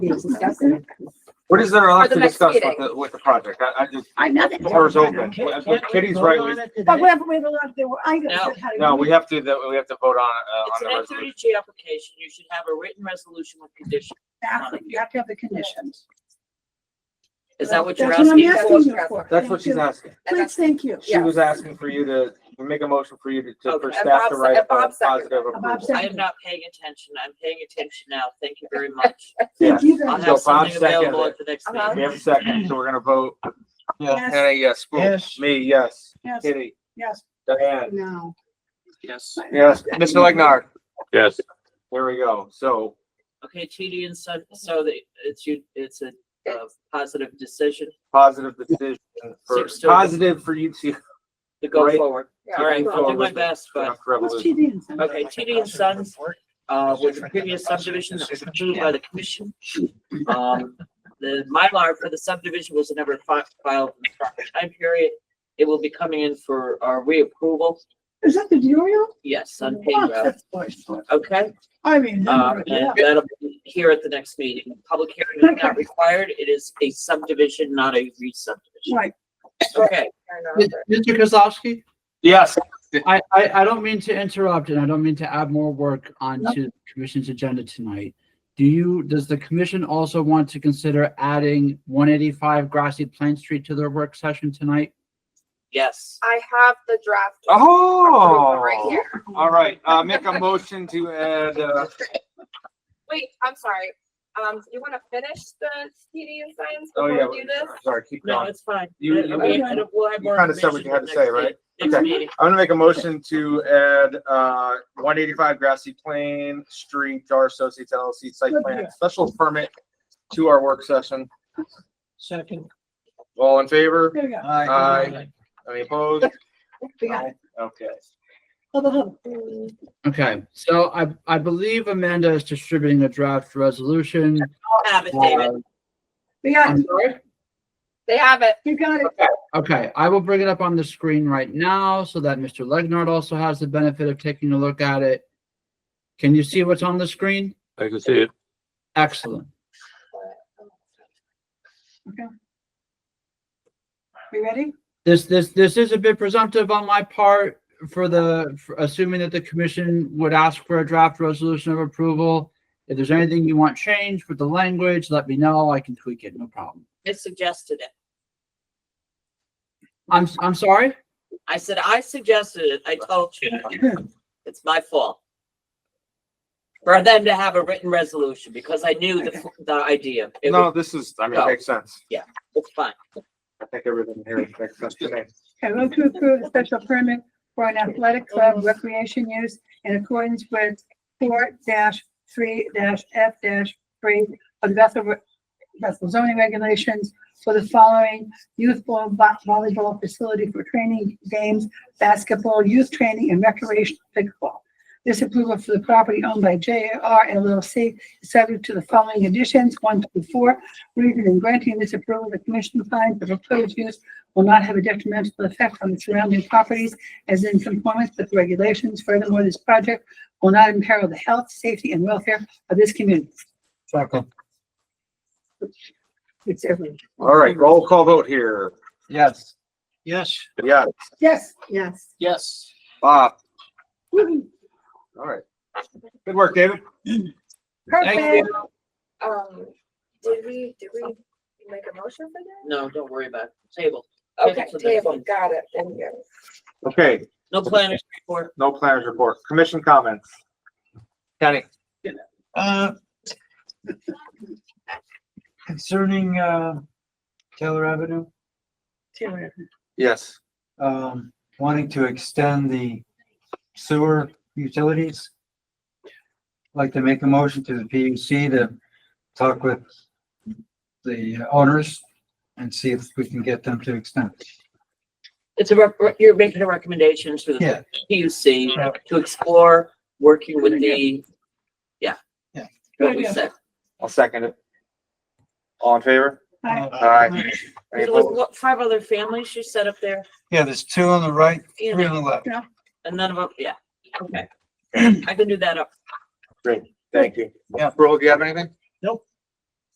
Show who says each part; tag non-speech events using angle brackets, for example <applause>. Speaker 1: you discuss it?
Speaker 2: What is there
Speaker 3: For
Speaker 2: left to
Speaker 3: the next
Speaker 2: discuss with
Speaker 3: meeting.
Speaker 2: the, with the project? I, I just,
Speaker 1: I'm not.
Speaker 2: the door's open. What Kitty's right, we-
Speaker 1: But we have, we have a lot, there were items that had.
Speaker 2: no, we have to, that- we have to vote on, uh, on
Speaker 4: It's
Speaker 2: the
Speaker 4: an N thirty
Speaker 2: resolution.
Speaker 4: G application, you should have a written resolution with conditions.
Speaker 1: Exactly, you have to have the conditions.
Speaker 4: Is that what you're
Speaker 1: That's what I'm
Speaker 4: asking? for?
Speaker 1: asking you for.
Speaker 2: That's what
Speaker 1: Thank you.
Speaker 2: she's asking.
Speaker 1: Please, thank you.
Speaker 2: She
Speaker 3: Yeah.
Speaker 2: was asking for you to, to make a motion for you to, to,
Speaker 4: Okay,
Speaker 2: for
Speaker 4: and
Speaker 2: staff to
Speaker 4: Bob's-
Speaker 2: write
Speaker 4: and
Speaker 2: a
Speaker 4: Bob's second.
Speaker 2: positive approval.
Speaker 1: Bob's
Speaker 4: I am not paying attention, I'm paying attention now, thank you very <laughs> much.
Speaker 1: Thank you very
Speaker 2: So
Speaker 4: I'll
Speaker 1: much.
Speaker 4: have
Speaker 2: Bob's
Speaker 4: something available
Speaker 2: second.
Speaker 4: at the next
Speaker 1: Uh-huh.
Speaker 2: We
Speaker 4: meeting.
Speaker 2: have a second, so we're gonna vote.
Speaker 1: Yes.
Speaker 2: Hannah, yes. Boom.
Speaker 5: Yes.
Speaker 2: Me, yes.
Speaker 1: Yes,
Speaker 2: Kitty,
Speaker 1: yes,
Speaker 2: Diane,
Speaker 1: no.
Speaker 4: Yes.
Speaker 2: yes. Mr. Legnar,
Speaker 6: Yes,
Speaker 2: there we go. So,
Speaker 4: Okay, TD and so, so that it's you, it's a, uh positive decision
Speaker 2: positive decision for,
Speaker 4: Six to-
Speaker 2: positive for you to.
Speaker 4: to go
Speaker 2: Right.
Speaker 4: forward. All right, I'll do my best, but,
Speaker 1: What's
Speaker 2: Revolution.
Speaker 1: TD and Sons?
Speaker 4: okay, TD and Sons, uh, was a previous subdivision that was approved by the commission. Um, the Mylar for the subdivision was never fi- filed in the proper time period. It will be coming in for our reapproval,
Speaker 1: Is that the Duriel?
Speaker 4: yes, on
Speaker 1: Wow,
Speaker 4: page,
Speaker 1: that's worse.
Speaker 4: okay?
Speaker 1: I mean. number-
Speaker 4: Um,
Speaker 1: yeah.
Speaker 4: and that'll be here at the next meeting. Public hearing is not required. It is a subdivision, not a re-subdivision.
Speaker 1: Right,
Speaker 4: Okay,
Speaker 5: Mr. Kozlowski,
Speaker 2: Yes,
Speaker 5: I, I, I don't mean to interrupt and I don't mean to add more work onto the commission's agenda tonight. Do you, does the commission also want to consider adding one eighty-five Grassy Plain Street to their work session tonight?
Speaker 4: yes.
Speaker 7: I have the draft. approval Right
Speaker 2: Oh,
Speaker 7: here.
Speaker 2: all right, uh, make a motion to add, uh,
Speaker 7: Wait, I'm sorry. Um, you want to finish the PD and science
Speaker 2: oh, yeah,
Speaker 7: before we do this?
Speaker 2: sorry, keep
Speaker 4: No,
Speaker 2: going.
Speaker 4: it's fine.
Speaker 2: You-
Speaker 4: I-
Speaker 2: you-
Speaker 4: I mean, I don't- we'll have
Speaker 2: you
Speaker 4: more
Speaker 2: kinda said what
Speaker 4: information
Speaker 2: you had
Speaker 4: for
Speaker 2: to say,
Speaker 4: next
Speaker 2: right?
Speaker 4: meeting- Next
Speaker 2: Okay.
Speaker 4: meeting.
Speaker 2: I'm gonna make a motion to add, uh, one eighty-five Grassy Plain Street, Jar Associates LLC Site Plan and Special Permit to our work session.
Speaker 5: Second.
Speaker 2: All in favor?
Speaker 1: there we go.
Speaker 2: Aye. Any <laughs> opposed?
Speaker 1: We got it.
Speaker 2: Okay.
Speaker 1: Hold on, hold
Speaker 5: Okay, so I, I believe Amanda is distributing a draft resolution.
Speaker 4: I'll have it, David.
Speaker 5: Uh,
Speaker 1: on. We got
Speaker 5: <laughs> I'm
Speaker 1: it.
Speaker 5: sorry?
Speaker 7: They have it.
Speaker 1: You got it.
Speaker 5: Okay, I will bring it up on the screen right now so that Mr. Legnard also has the benefit of taking a look at it. Can you see what's on the screen?
Speaker 6: I can see it.
Speaker 5: Excellent.
Speaker 1: We ready?
Speaker 5: This, this, this is a bit presumptive on my part for the, for assuming that the commission would ask for a draft resolution of approval. If there's anything you want changed with the language, let me know. I can tweak it, no problem.
Speaker 4: I suggested it.
Speaker 5: I'm, I'm sorry?
Speaker 4: I said, I suggested it. I told
Speaker 1: <laughs>
Speaker 4: you. It's my fault. For them to have a written resolution because I knew the, the idea. It
Speaker 2: No,
Speaker 4: was,
Speaker 2: this is, I mean, it makes sense.
Speaker 4: it's fine.
Speaker 2: I think everything here makes sense to me.
Speaker 1: Okay, vote to approve a special permit for an athletic club recreation use in accordance with four three F three of the Bethel, Bethel zoning regulations for the following youth ball- vo- volleyball facility for training games, basketball, youth training, and recreational pickleball. This approval for the property owned by JR LLC is subject to the following additions, one through four. Reason in granting this approval, the commission finds the proposed use will not have a detrimental effect on the surrounding properties as in conformance with regulations. Furthermore, this project will not imperil the health, safety, and welfare of this community.
Speaker 5: Second.
Speaker 1: It's everyone.
Speaker 2: All right, roll call vote here.
Speaker 5: Yes.
Speaker 8: Yes.
Speaker 2: Yeah,
Speaker 1: Yes. Yes.
Speaker 8: Yes.
Speaker 2: Bob. All right. Good work, David.
Speaker 1: Perfect.
Speaker 7: Um, did we, did we make a motion for that?
Speaker 4: No, don't worry about it. Table.
Speaker 7: Okay,
Speaker 4: Table.
Speaker 7: table, got it. Thank you.
Speaker 2: Okay,
Speaker 4: No planners report.
Speaker 2: no planners report. Commission comments. Kenny.
Speaker 8: Uh, Concerning, uh, Taylor Avenue,
Speaker 2: Yes.
Speaker 8: um, wanting to extend the sewer utilities. Like to make a motion to the PUC to talk with the owners and see if we can get them to extend.
Speaker 4: It's a, rep- you're making a recommendation to
Speaker 8: Yeah.
Speaker 4: the PUC to explore working with the, what
Speaker 1: Good
Speaker 4: we
Speaker 1: idea.
Speaker 4: said.
Speaker 2: I'll second it. All in favor?
Speaker 1: Hi.
Speaker 2: Aye. Any
Speaker 4: There was,
Speaker 2: opposed?
Speaker 4: what, five other families you set up there?
Speaker 8: Yeah, there's two on the right,
Speaker 4: You
Speaker 8: three
Speaker 4: know,
Speaker 8: on the left.
Speaker 4: and none of them, yeah, okay. I can do that up.
Speaker 2: Thank you.
Speaker 8: Yeah.
Speaker 2: Roll, do you have anything?